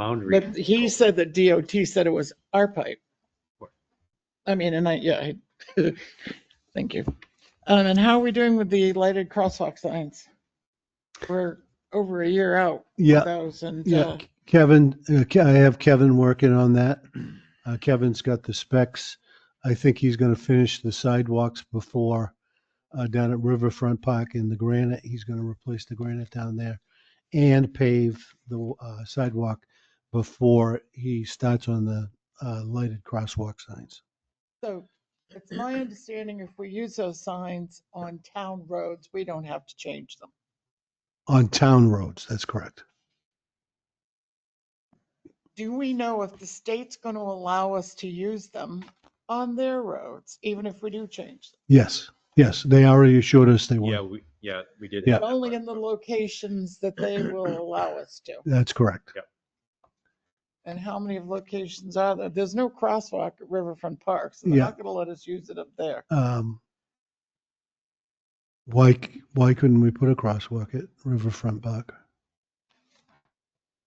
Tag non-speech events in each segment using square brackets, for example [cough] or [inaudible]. boundary. But he said that DOT said it was our pipe. I mean, and I, yeah, I- [laughs] thank you. Um, and how are we doing with the lighted crosswalk signs? We're over a year out with Yeah, those and, yeah. uh, Kevin, uh, Ke- I have Kevin working on that. Uh, Kevin's got the specs. I think he's going to finish the sidewalks before uh, down at Riverfront Park in the granite. He's going to replace the granite down there and pave the uh, sidewalk before he starts on the uh, lighted crosswalk signs. so it's my understanding if we use those signs on town roads, we don't have to change them. On town roads, that's correct. Do we know if the state's going to allow us to use them on their roads, even if we do change Yes, yes, they already assured us they Yeah, were. we, yeah, we did. Yeah. them? Only in the locations that they will allow us to. That's correct. And how many of locations are there? There's no crosswalk at Riverfront Park, so they're Yeah. not gonna let us use it up there. um, why c- why couldn't we put a crosswalk at Riverfront Park?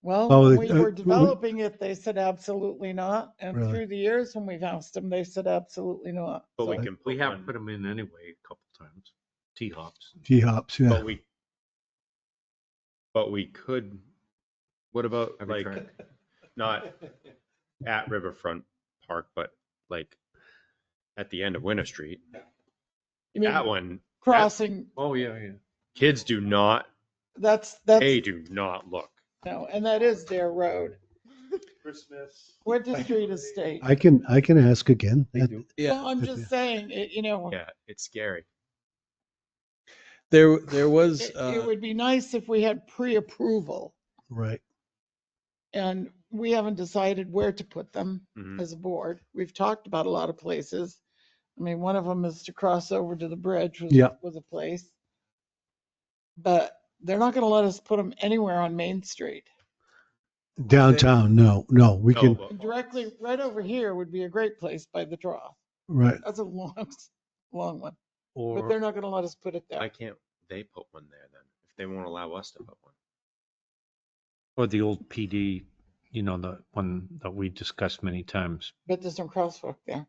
Well, Oh, when they- we uh, were w- developing it, they said absolutely not. And Really? through the years, when we've asked them, they said absolutely not. But we So- can. We put have one- put them in anyway a couple times, T hops. T hops, yeah. But Oh, we, but we could, what about Every like, track. not [laughs] at Riverfront Park, but like at the end of Winter Street? You That mean, one, crossing, Oh, yeah, yeah. kids do not, that's, that's, they do not look. no, and that is their road. Christmas. Winter Street is state. I can I can ask again. That- Well, I'm Yeah. just saying, it, you know, it, Yeah, it's scary. There, there was, it uh, would be nice if we had pre-approval. right. And we haven't decided where to put them. Mm-hmm. Mhm. as a board. We've talked about a lot of places. I mean, one of them is to cross over to the bridge was, Yeah. was a place. But they're not gonna let us put them anywhere on Main Street. Downtown, no, no. We No, can but- And Directly, right over here would be a great place by the draw. right. That's a long, [laughs] long one, but they're Or not gonna let us put it Why there. can't they put one there then? If they won't allow us to put one? or the old PD, you know, the one that we discussed many times. But there's no crosswalk there.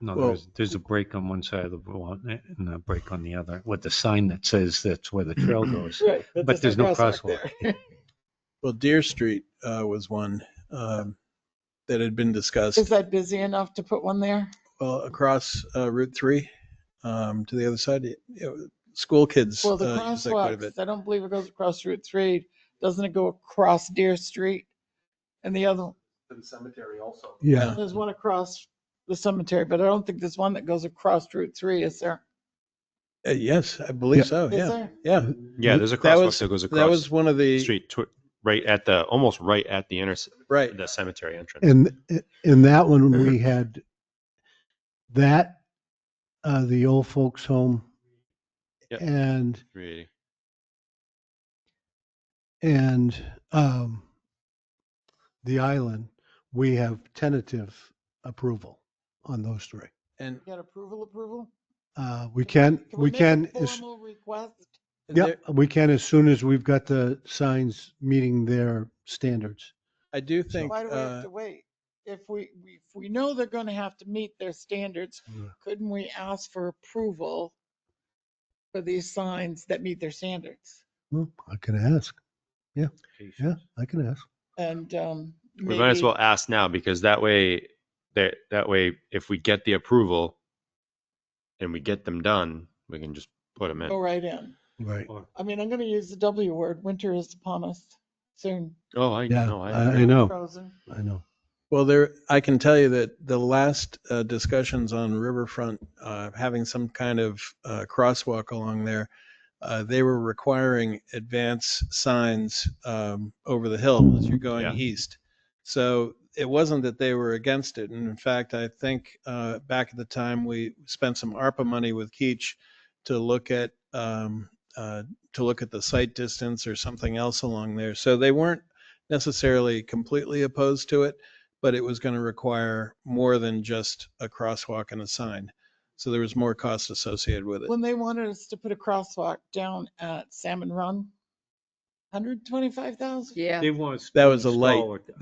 No, Well- there's, there's a break on one side of the road and a break on the other with the sign that says that's where the trail goes. Right. But there's no crosswalk. [laughs] there. [laughs] well, Deer Street, uh, was one, um, that had been Is discussed, that busy enough to put one there? well, across, uh, Route Three, um, to the other side. It- it- School kids. Well, the uh, use that quite a bit. crosswalks, I don't believe it goes across Route Three. Doesn't it go across Deer Street? And the other, the cemetery also. Yeah. There's one across the cemetery, but I don't think there's one that goes across Route Three, is there? Uh, yes, I Yeah. believe so. Is Oh, Yeah, there? yeah. Yeah, there's a That crosswalk was- that goes That across was one of the the, street, tw- right at the, almost right at the inter, right. the cemetery entrance. And in that one we had that uh the old folks home Yeah. and Really? and um the island, we have tentative approval on those three. And Get approval, approval? Uh, we can, we make a can, as- Formal request, yeah, there- we can as soon as we've got the signs meeting their standards. I do think, why do we have uh, to wait? If we, we- if we know they're gonna have to meet their standards, Mm. Yeah. couldn't we ask for approval for these signs that meet their standards? Well, Hmm, I can ask. Yeah, yeah, I can ask. And, um. We might as maybe- well ask now because that way, that, that way, if we get the approval and we get them done, we can just put them Go Oh, in. right in. Right. Or- I mean, I'm gonna use the W word. Winter is upon us soon. Oh, I Yeah, know. I I I know, Frozen. I know. Well, there, I can tell you that the last uh, discussions on Riverfront, uh, having some kind of uh, crosswalk along there, uh, they were requiring advance signs um, over the hill as you're Yeah. going east. So it wasn't that they were against it. And in fact, I think uh, back at the time, we spent some ARPA money with Keach to look at, um, uh, to look at the site distance or something else along there. So they weren't necessarily completely opposed to it but it was going to require more than just a crosswalk and a sign. So there was more cost associated with it. When they wanted us to put a crosswalk down at Salmon Run, hundred twenty-five thousand? Yeah. They want. That was a install light. it.